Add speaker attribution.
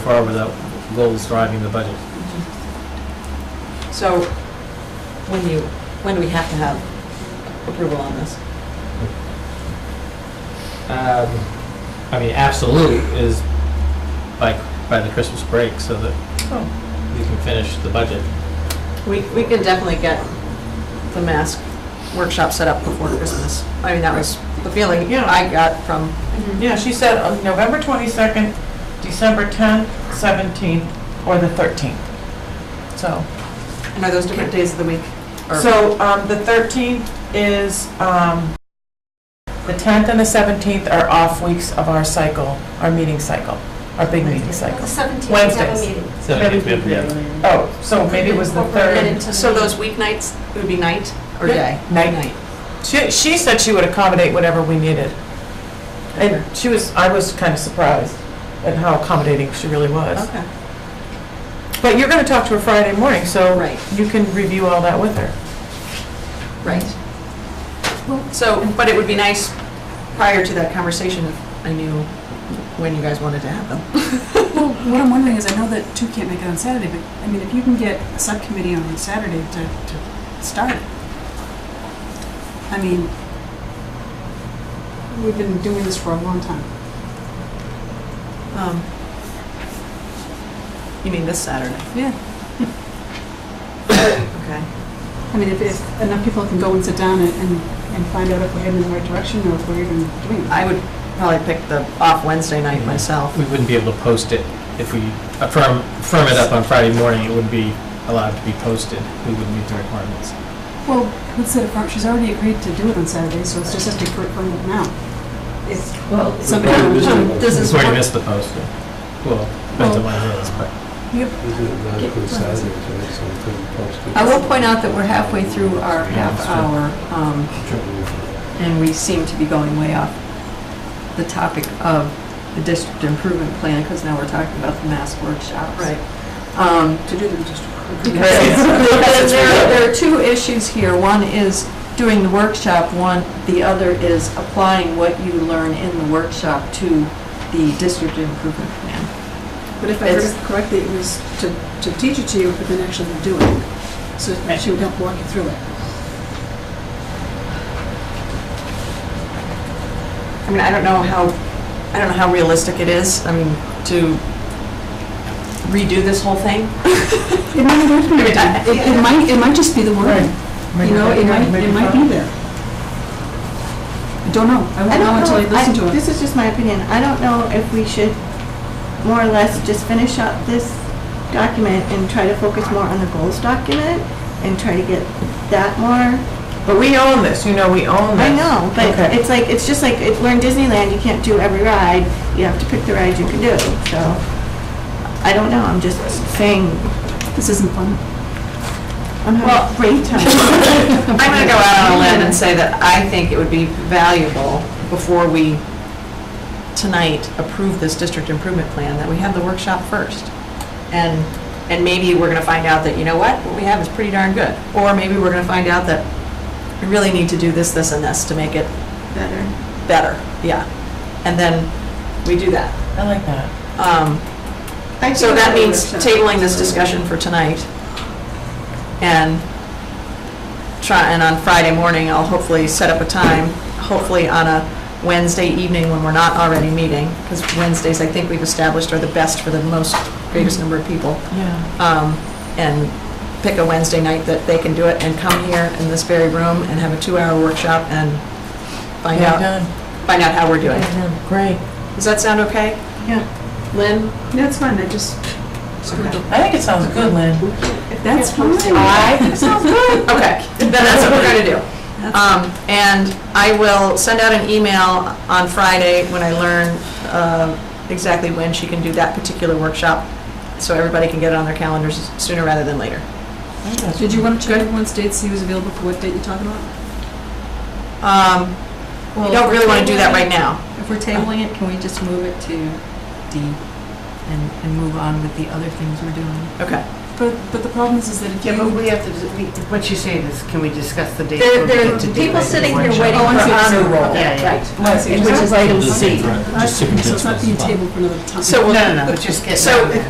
Speaker 1: far without goals driving the budget.
Speaker 2: So when do you, when do we have to have approval on this?
Speaker 1: Um, I mean, absolute is by, by the Christmas break, so that
Speaker 3: Oh,
Speaker 1: you can finish the budget.
Speaker 2: We, we can definitely get the mask workshop set up before Christmas. I mean, that was the feeling
Speaker 3: Yeah.
Speaker 2: I got from,
Speaker 3: Yeah, she said uh, November 22nd, December 10th, 17th, or the 13th. So,
Speaker 2: and are those different days of the week? Or-
Speaker 3: so um, the 13th is, um, the 10th and the 17th are off weeks of our cycle, our meeting cycle, our big meeting cycle.
Speaker 4: The 17th, we have a
Speaker 3: Wednesdays.
Speaker 4: meeting.
Speaker 1: So if you have- yeah.
Speaker 3: Oh, so maybe it was the
Speaker 4: Incorporated
Speaker 3: 3rd.
Speaker 4: into
Speaker 2: So
Speaker 4: the-
Speaker 2: those weeknights, it would be night or
Speaker 3: Yeah.
Speaker 2: day?
Speaker 3: Night. She, she said she would accommodate whatever we needed. And she was, I was kind of surprised at how accommodating she really was.
Speaker 2: Okay,
Speaker 3: But you're going to talk to her Friday morning, so
Speaker 2: Right.
Speaker 3: you can review all that with her.
Speaker 2: right. So, but it would be nice prior to that conversation if I knew when you guys wanted to have them.
Speaker 5: Well, what I'm wondering is, I know that two can't make it on Saturday, but, I mean, if you can get a subcommittee on Saturday to, to start it. I mean, we've been doing this for a long time.
Speaker 2: Um, You mean this Saturday?
Speaker 5: Yeah.
Speaker 2: Okay.
Speaker 5: I mean, if, if enough people can go and sit down and, and and find out if we're heading in the right direction or if we're even doing it.
Speaker 2: I would probably pick the off Wednesday night myself.
Speaker 1: We wouldn't be able to post it if we affirm, firm it up on Friday morning, it wouldn't be allowed to be posted. We wouldn't meet the requirements.
Speaker 5: Well, let's set it for, she's already agreed to do it on Saturday, so it's just has to be confirmed now. It's,
Speaker 4: Well,
Speaker 5: somebody
Speaker 6: probably
Speaker 5: will
Speaker 6: busy.
Speaker 5: come.
Speaker 2: This is
Speaker 1: We already
Speaker 2: what-
Speaker 1: missed the posting. Well, depends on when it is, but.
Speaker 6: This is not good Saturday, so it's something posted.
Speaker 4: I will point out that we're halfway through our half hour, um, and we seem to be going way off the topic of the district improvement plan, because now we're talking about the mass workshops. Um,
Speaker 5: To do them just.
Speaker 4: Because there, there are two issues here. One is doing the workshop, one, the other is applying what you learn in the workshop to the district improvement plan.
Speaker 5: But if I heard
Speaker 4: It's-
Speaker 5: it correctly, it was to, to teach it to you, but then actually do it. So she would help walk you through it.
Speaker 2: I mean, I don't know how, I don't know how realistic it is, I mean, to redo this whole thing.
Speaker 5: It might not be, it it might, it might just be the word. You know, it might, it might be there. I don't know. I
Speaker 7: I
Speaker 5: won't
Speaker 7: don't
Speaker 5: know until I listen to it.
Speaker 7: This is just my opinion. I don't know if we should more or less just finish up this document and try to focus more on the goals document and try to get that more.
Speaker 3: But we own this, you know, we own this.
Speaker 7: I know, but
Speaker 3: Okay.
Speaker 7: it's like, it's just like, it- we're in Disneyland, you can't do every ride. You have to pick the ride you can do, so. I don't know, I'm just saying,
Speaker 5: This isn't fun.
Speaker 7: I'm having a great time.
Speaker 2: I'm gonna go out on a limb and say that I think it would be valuable before we, tonight, approve this district improvement plan, that we have the workshop first. And, and maybe we're gonna find out that, you know what, what we have is pretty darn good. Or maybe we're gonna find out that we really need to do this, this, and this to make it
Speaker 7: Better.
Speaker 2: better, yeah. And then we do that.
Speaker 3: I like that.
Speaker 2: Um,
Speaker 5: I
Speaker 2: So
Speaker 5: think
Speaker 2: that
Speaker 5: the
Speaker 2: means
Speaker 5: workshop-
Speaker 2: tabling this discussion for tonight. And try, and on Friday morning, I'll hopefully set up a time, hopefully on a Wednesday evening when we're not already meeting, because Wednesdays, I think we've established, are the best for the most, greatest number of people.
Speaker 3: Yeah.
Speaker 2: Um, And pick a Wednesday night that they can do it and come here in this very room and have a two-hour workshop and find
Speaker 3: Yeah,
Speaker 2: out,
Speaker 3: done.
Speaker 2: find out how we're doing.
Speaker 3: Great.
Speaker 2: Does that sound okay?
Speaker 5: Yeah.
Speaker 2: Lynn?
Speaker 5: That's fine, I just screwed up.
Speaker 3: I think it sounds good, Lynn.
Speaker 5: That's fine.
Speaker 2: I think sounds good. Okay, then that's what we're gonna do. Um, And I will send out an email on Friday when I learn uh, exactly when she can do that particular workshop, so everybody can get it on their calendars sooner rather than later.
Speaker 5: Did you want to check everyone's dates, see who's available for what date you're talking about?
Speaker 2: Um, We don't really want to do that right now.
Speaker 4: If we're tabling it, can we just move it to D and, and move on with the other things we're doing?
Speaker 2: Okay.
Speaker 5: but, but the problem is, is that if you.
Speaker 3: Yeah, but we have to, what she's saying is, can we discuss the date?
Speaker 2: There,
Speaker 3: when we
Speaker 2: there
Speaker 3: get
Speaker 2: are
Speaker 3: to do
Speaker 2: people
Speaker 3: it?
Speaker 2: sitting here
Speaker 3: Workshop.
Speaker 2: waiting
Speaker 5: Oh,
Speaker 2: for
Speaker 5: I see what you're
Speaker 2: honor
Speaker 5: saying.
Speaker 2: roll,
Speaker 3: Yeah, yeah,
Speaker 2: right?
Speaker 5: I see what you're
Speaker 2: Which is
Speaker 5: saying.
Speaker 2: item
Speaker 1: Just
Speaker 2: C.
Speaker 1: just
Speaker 5: So it's not being
Speaker 1: fine.
Speaker 5: tabled for another time.
Speaker 8: So
Speaker 3: No, no, no, but just getting.
Speaker 8: So
Speaker 3: on that.